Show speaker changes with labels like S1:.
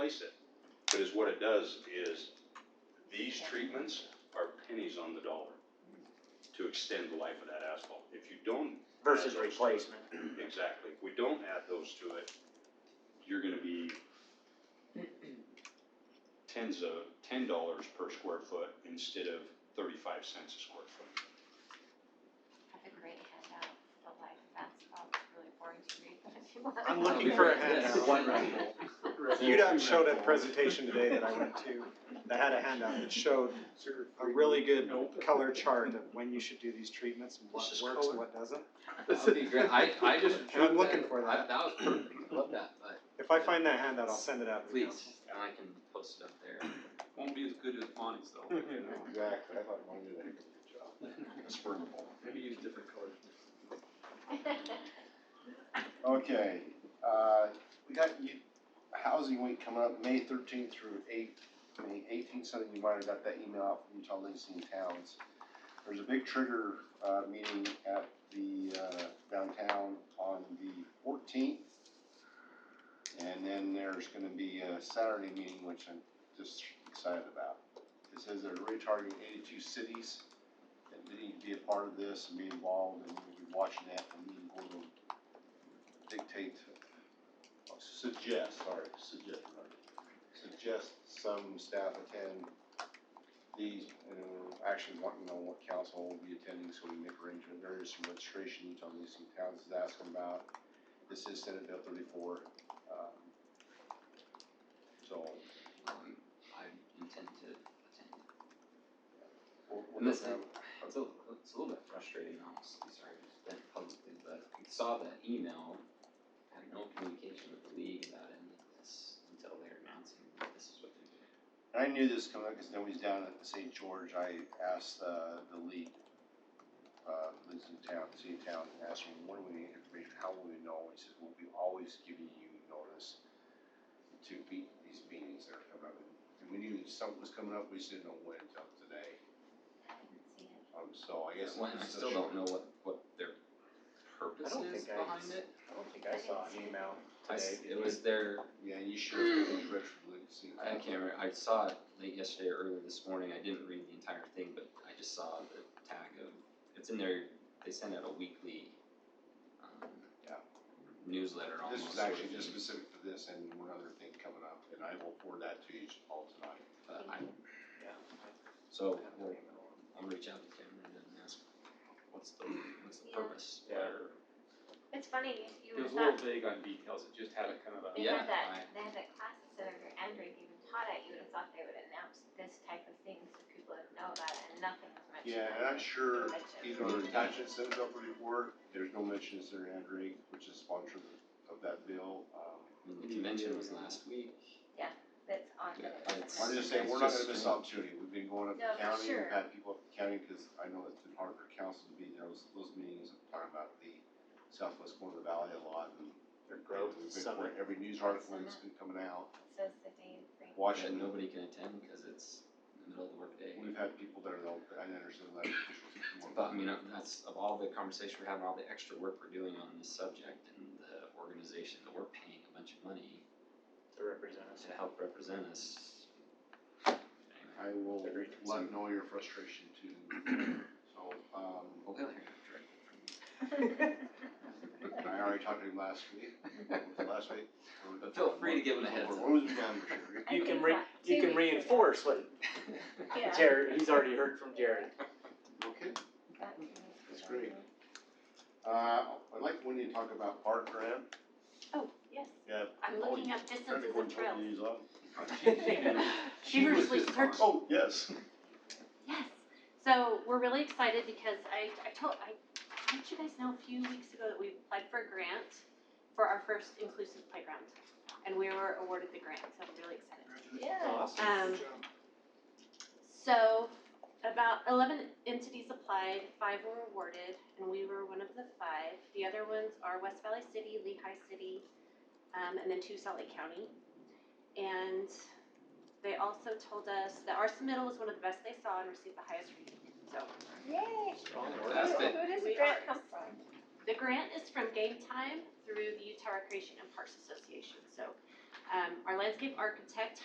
S1: does is, these treatments are pennies on the dollar to extend the life of that asphalt. If you don't,
S2: versus replacement.
S1: exactly, if we don't add those to it, you're gonna be tens of, ten dollars per square foot instead of thirty-five cents a square foot.
S3: Have a great handout, the life of asphalt, it's really boring to read, but if you want.
S2: I'm looking for a handout.
S4: One round.
S5: UDOT showed a presentation today that I went to, that had a handout that showed a really good color chart of when you should do these treatments and what
S2: This is
S5: works
S2: color.
S5: and what doesn't.
S4: That would be great. I, I just.
S5: I'm looking for
S4: I-
S5: that.
S4: That was perfect, I love that, but
S5: If I find that handout, I'll send it out. to you.
S4: please, and I can post it up there.
S6: Won't be as good as Bonnie's though.
S7: Exactly, I thought mine did a heck of a job.
S1: It's burnable.
S6: Maybe use different colors.
S7: Okay, uh, we got you, Housing Week coming up, May thirteenth through eight, May eighteenth, so you might have got that email out from Utah Lansing Towns. There's a big trigger, uh, meeting at the, uh, downtown on the fourteenth. And then there's gonna be a Saturday meeting, which I'm just excited about. It says they're really targeting eighty-two cities that need to be a part of this and be involved, and we'll be watching that and meeting board will dictate, or suggest, sorry, suggest, suggest some staff attend these, and we're actually wanting to know what council will be attending, so we make arrangement, there is some registration each on these towns is asking about. This is Senate Bill thirty-four, um, so.
S4: Um, I intend to attend.
S7: we'll- we'll
S4: And this
S7: have-
S4: It's a, it's a little bit frustrating, honestly, sorry, to just vent publicly, but I saw that email, had no communication with the league about any of this until they were announcing that this is what they're doing.
S7: And I knew this coming up because nobody's down at the St. George. I asked uh, the lead, uh, lives in town, city of town, and asked him, "What do we need information? How will we know?" He says, "We'll be always giving you notice to be these meetings that are coming up." And we knew something was coming up. We just didn't know when until today. Um, so I guess
S4: Well, and I
S7: this is a
S4: still
S7: short-
S4: don't know what, what their purpose
S2: don't
S4: is
S2: think I-
S4: behind it.
S5: I don't think I saw an email
S4: I s-
S5: today.
S4: It was their,
S7: Yeah, you should have been retroactively seen.
S4: I can't remember, I saw it late yesterday or early this morning, I didn't read the entire thing, but I just saw the tag of, it's in their, they send out a weekly, um,
S7: Yeah.
S4: newsletter almost.
S7: This was
S4: sort of
S7: actually just
S4: thing,
S7: specific for this and one other thing coming up, and I will forward that to you all tonight.
S4: But I,
S2: Yeah.
S4: so, we'll, I'll reach out to Cameron and ask, what's the, what's the
S3: Yeah.
S4: purpose?
S2: Yeah.
S4: Or-
S3: It's funny, you- you
S6: It was a
S3: were
S6: little
S3: not,
S6: vague on details, it just had a kind of a.
S3: they
S4: Yeah,
S3: had that,
S4: I-
S3: they had that class at Senator Andrew even taught at, you would have thought they would announce this type of thing so people would know about it, and nothing was mentioned.
S7: Yeah, and I'm sure either
S3: Mentioned.
S7: the attachment sent up before, there's no mention of Senator Andrew, which is sponsor of that bill. Um,
S4: I mean, the convention was last week,
S3: That's on
S4: Yeah,
S3: the.
S4: it's-
S7: I'm just saying, we're not gonna miss opportunity. We've been going up
S3: No,
S7: to
S3: for
S7: county,
S3: sure.
S7: we've had people up to county, cause I know it's been hard for council to be, there was those meetings talking about the southwest corner of the valley a lot and their growth. We've been,
S2: Summit.
S7: every news article that's been coming out,
S3: So it's the day of thing.
S4: that
S7: Washington.
S4: nobody can attend because it's in the middle of the workday.
S7: We've had people there though, but I didn't understand that.
S4: But I mean, uh, that's of all the conversation we're having, all the extra work we're doing on this subject and the organization that we're paying a bunch of money
S2: To represent us.
S4: to help represent us. Anyway,
S7: I will
S2: Agreed.
S7: let know your frustration too. So, um,
S4: well, they'll hear it directly from me.
S7: I already talked to him last week, last week.
S4: But feel free to give him a heads up.
S7: What was your number, Sherry?
S3: I
S2: You can
S3: think
S2: re,
S3: that
S2: you
S3: two
S2: can
S3: weeks ago.
S2: reinforce what
S3: Yeah.
S2: Jared, he's already heard from Jared.
S7: Okay,
S3: That two weeks
S7: That's
S3: ago.
S7: great. uh, I'd like Wendy to talk about park grant.
S3: Oh, yes,
S7: Yeah.
S3: I'm
S7: Oh,
S3: looking
S7: you-
S3: up distances and trails.
S7: She was
S3: Feverishly
S7: just
S3: searching.
S7: on. Oh, yes.
S3: Yes, so we're really excited because I, I told, I, I let you guys know a few weeks ago that we applied for a grant for our first inclusive playground. And we were awarded the grant, so I'm really excited.
S2: Awesome.
S3: Um, so about eleven entities applied, five were awarded, and we were one of the five. The other ones are West Valley City, Lehigh City, um, and then two Salt Lake County. And they also told us that our submittal was one of the best they saw and received the highest rating. So
S8: Yay!
S4: Fantastic.
S8: Who does
S3: We
S8: the
S3: are-
S8: grant come from?
S3: the grant is from Game Time through the Utah Recreation and Parks Association. So um, our landscape architect